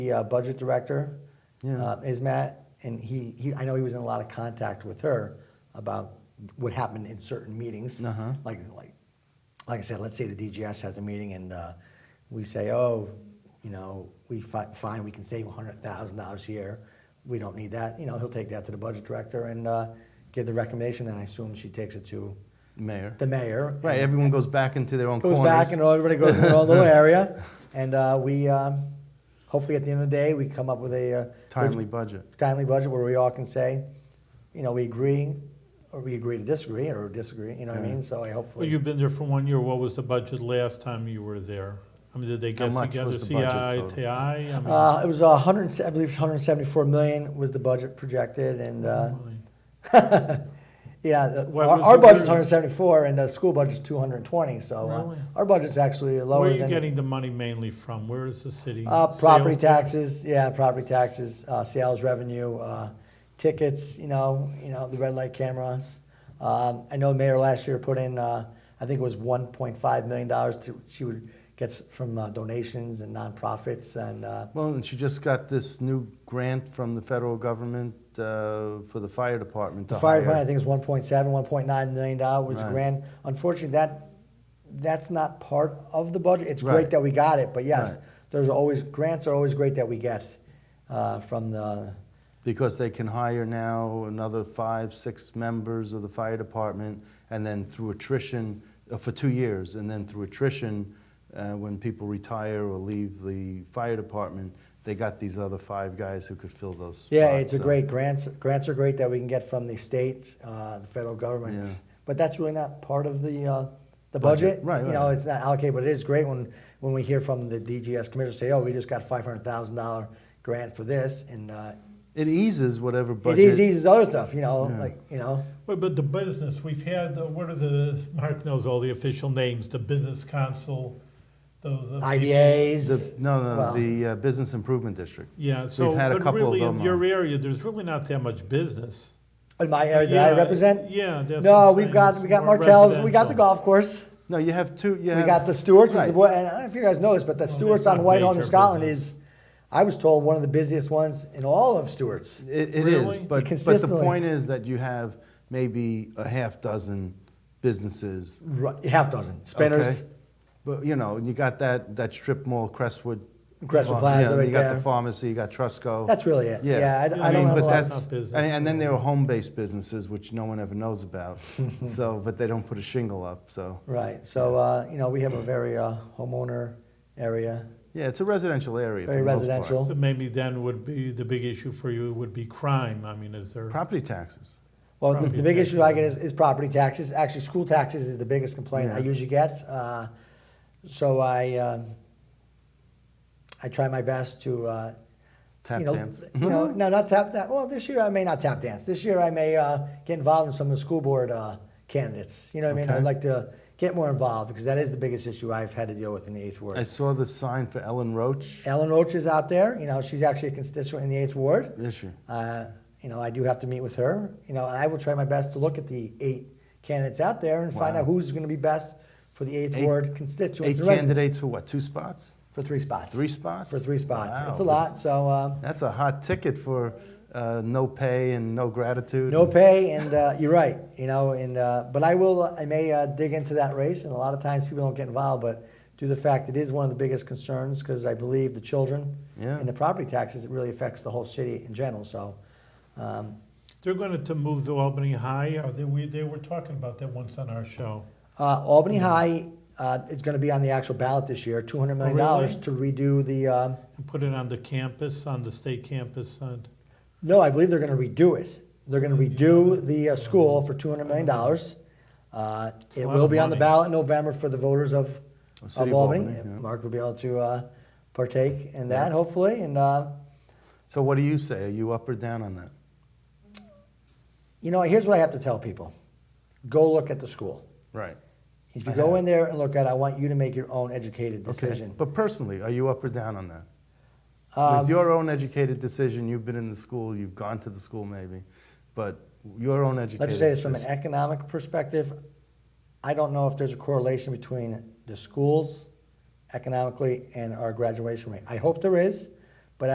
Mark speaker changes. Speaker 1: the uh, budget director
Speaker 2: Yeah.
Speaker 1: uh, is Matt, and he, he, I know he was in a lot of contact with her about what happened in certain meetings.
Speaker 2: Uh-huh.
Speaker 1: Like, like, like I said, let's say the DGS has a meeting and uh, we say, oh, you know, we fi- find we can save hundred thousand dollars here. We don't need that. You know, he'll take that to the budget director and uh, give the recommendation, and I assume she takes it to
Speaker 2: Mayor.
Speaker 1: the mayor.
Speaker 2: Right,
Speaker 1: and-
Speaker 2: everyone goes back into their own
Speaker 1: goes
Speaker 2: corners.
Speaker 1: back and everybody goes in their own little area. And uh, we, um, hopefully at the end of the day, we come up with a uh,
Speaker 2: Timely budget.
Speaker 1: timely budget where we all can say, you know, we agree, or we agree to disagree, or disagree, you know what I mean? So I
Speaker 3: Well,
Speaker 1: hopefully.
Speaker 3: you've been there for one year. What was the budget last time you were there? I mean, did they
Speaker 2: How
Speaker 3: get
Speaker 2: much
Speaker 3: together,
Speaker 2: was the
Speaker 3: CI,
Speaker 2: budget total?
Speaker 3: TI? I mean,
Speaker 1: uh, it was a hundred, and se- I believe it's 174 million was the budget projected, and uh,
Speaker 3: money.
Speaker 1: yeah, the-
Speaker 3: Mm-hmm. What
Speaker 1: our,
Speaker 3: was
Speaker 1: our
Speaker 3: the-
Speaker 1: budget's 174, and the school budget's 220. So uh,
Speaker 3: Really?
Speaker 1: our budget's actually lower
Speaker 3: Where are you
Speaker 1: than
Speaker 3: getting the money mainly from? Where is the city?
Speaker 1: Uh, property
Speaker 3: Sales tax?
Speaker 1: taxes, yeah, property taxes, uh, sales revenue, uh, tickets, you know, you know, the red light cameras. Um, I know the mayor last year put in, uh, I think it was one point five million dollars to, she would gets from uh, donations and nonprofits and, uh,
Speaker 2: Well, and she just got this new grant from the federal government uh, for the fire department to
Speaker 1: the fire
Speaker 2: hire.
Speaker 1: department, I think it was one point seven, one point nine million dollar was a
Speaker 2: Right.
Speaker 1: grand. Unfortunately, that, that's not part of the budget. It's
Speaker 2: Right.
Speaker 1: great that we got it, but yes,
Speaker 2: Right.
Speaker 1: there's always, grants are always great that we get, uh, from the,
Speaker 2: Because they can hire now another five, six members of the fire department, and then through attrition, uh, for two years, and then through attrition, uh, when people retire or leave the fire department, they got these other five guys who could fill those spots.
Speaker 1: Yeah, it's a
Speaker 2: so-
Speaker 1: great grants. Grants are great that we can get from the state, uh, the federal government.
Speaker 2: Yeah.
Speaker 1: But that's really not part of the uh, the budget.
Speaker 2: Budget, right,
Speaker 1: You know,
Speaker 2: right.
Speaker 1: it's not allocated, but it is great when when we hear from the DGS commissioner say, "Oh, we just got five hundred thousand dollar grant for this," and uh,
Speaker 2: It eases whatever
Speaker 1: it
Speaker 2: budget.
Speaker 1: is easy other stuff. You know,
Speaker 2: Yeah.
Speaker 1: like you know,
Speaker 3: Well, but the business, we've had, uh, what are the, Mark knows all the official names, the business council, those. uh, people.
Speaker 1: IDAs.
Speaker 2: The, no, no,
Speaker 1: Well-
Speaker 2: the uh, business improvement district.
Speaker 3: Yeah, so,
Speaker 2: had a
Speaker 3: but
Speaker 2: couple of
Speaker 3: really in
Speaker 2: them,
Speaker 3: your
Speaker 2: uh,
Speaker 3: area, there's really not that much business.
Speaker 1: in my area that I
Speaker 3: Yeah,
Speaker 1: represent.
Speaker 3: Yeah, that's what
Speaker 1: No,
Speaker 3: I'm
Speaker 1: we've
Speaker 3: saying.
Speaker 1: got
Speaker 3: It's
Speaker 1: we got
Speaker 3: more
Speaker 1: Martell's. We got the
Speaker 3: residential.
Speaker 1: golf course.
Speaker 2: No, you have two. You
Speaker 1: We
Speaker 2: have,
Speaker 1: got the Stewarts, which is
Speaker 2: Right.
Speaker 1: what, and I don't know if you guys know this, but the
Speaker 3: Well,
Speaker 1: Stewarts
Speaker 3: that's not
Speaker 1: on Whitehall, New
Speaker 3: major
Speaker 1: Scotland
Speaker 3: business.
Speaker 1: is, I was told, one of the busiest ones in all of Stewarts.
Speaker 2: It, it is,
Speaker 3: Really?
Speaker 2: but, but the
Speaker 1: Consistently.
Speaker 2: point is that you have maybe a half dozen businesses.
Speaker 1: Right, half dozen spinners.
Speaker 2: okay? But you know, you got that that strip mall, Crestwood.
Speaker 1: Crestwood
Speaker 2: Pharma-
Speaker 1: Plaza
Speaker 2: yeah,
Speaker 1: right
Speaker 2: You got
Speaker 1: there.
Speaker 2: the pharmacy. You got Trusco.
Speaker 1: That's really it. Yeah, I,
Speaker 3: Yeah,
Speaker 1: I
Speaker 3: I
Speaker 1: don't
Speaker 3: mean,
Speaker 1: have a
Speaker 2: but
Speaker 1: lot.
Speaker 2: that's
Speaker 3: It's not business.
Speaker 2: and, and then there are home-based businesses which no one ever knows about. so, but they don't put a shingle up. So,
Speaker 1: right. So uh, you know, we have a very uh, homeowner area,
Speaker 2: yeah, it's a residential area. for
Speaker 1: very
Speaker 2: the most part.
Speaker 1: residential.
Speaker 3: So Maybe then would be, the big issue for you would be crime. I mean, is there?
Speaker 2: Property taxes.
Speaker 1: Well, the,
Speaker 3: Property
Speaker 1: the big
Speaker 3: tax.
Speaker 1: issue I get is, is property taxes. Actually, school taxes is the biggest complaint I
Speaker 2: Yeah.
Speaker 1: usually get. Uh, so I, um, I try my best to. Uh,
Speaker 2: Tap
Speaker 1: you know,
Speaker 2: dance.
Speaker 1: You know, no, not tap that. Well, this year I may not tap dance. This year I may uh, get involved in some of the school board uh, candidates. You know what I mean?
Speaker 2: Okay.
Speaker 1: I'd like to get more involved because that is the biggest issue I've had to deal with in the eighth ward.
Speaker 2: I saw the sign for Ellen Roach.
Speaker 1: Ellen Roach is out there. You know, she's actually a constituent in the eighth ward.
Speaker 2: Is she?
Speaker 1: Uh, you know, I do have to meet with her. You know, and I will try my best to look at the eight candidates out there and find
Speaker 2: Wow.
Speaker 1: out who's going to be best for the eighth
Speaker 2: Eight-
Speaker 1: ward constituents
Speaker 2: Eight
Speaker 1: and residents.
Speaker 2: candidates for what? Two spots?
Speaker 1: for three spots.
Speaker 2: Three spots?
Speaker 1: for three spots.
Speaker 2: Wow,
Speaker 1: it's a lot.
Speaker 2: that's-
Speaker 1: So. Um,
Speaker 2: That's a hot ticket for uh, no pay and no gratitude.
Speaker 1: No pay, and uh, you're right. You know, and uh, but I will. I may uh, dig into that race, and a lot of times people don't get involved, but due to the fact it is one of the biggest concerns, because I believe the children
Speaker 2: Yeah.
Speaker 1: and the property taxes, it really affects the whole city in general. So, um,
Speaker 3: They're going to move the Albany High. Are they, we, they were talking about that once on our show.
Speaker 1: uh, Albany High uh, is going to be on the actual ballot this year, two hundred
Speaker 2: Oh,
Speaker 1: million dollars to redo the. Um,
Speaker 3: And put it on the campus, on the state campus. And
Speaker 1: No, I believe they're going to redo it. They're going to redo the uh, school for two hundred million dollars. Uh, it
Speaker 3: a lot
Speaker 1: will
Speaker 3: of
Speaker 1: be on the
Speaker 3: money.
Speaker 1: ballot in November for the voters of,
Speaker 2: Of
Speaker 1: of
Speaker 2: City
Speaker 1: Albany.
Speaker 2: of Albany, yeah.
Speaker 1: Mark will be able to uh, partake in that, hopefully. And uh,
Speaker 2: So what do you say? Are you up or down on that?
Speaker 1: you know, here's what I have to tell people: go look at the school.
Speaker 2: Right.
Speaker 1: If you
Speaker 2: I
Speaker 1: go
Speaker 2: have.
Speaker 1: in there and look at, it, I want you to make your own educated decision.
Speaker 2: Okay. But personally, are you up or down on that?
Speaker 1: Um,
Speaker 2: With your own educated decision, you've been in the school, you've gone to the school maybe, but your own educated
Speaker 1: Let's just say this from an
Speaker 2: decision-
Speaker 1: economic perspective. I don't know if there's a correlation between the schools economically and our graduation rate. I hope there is.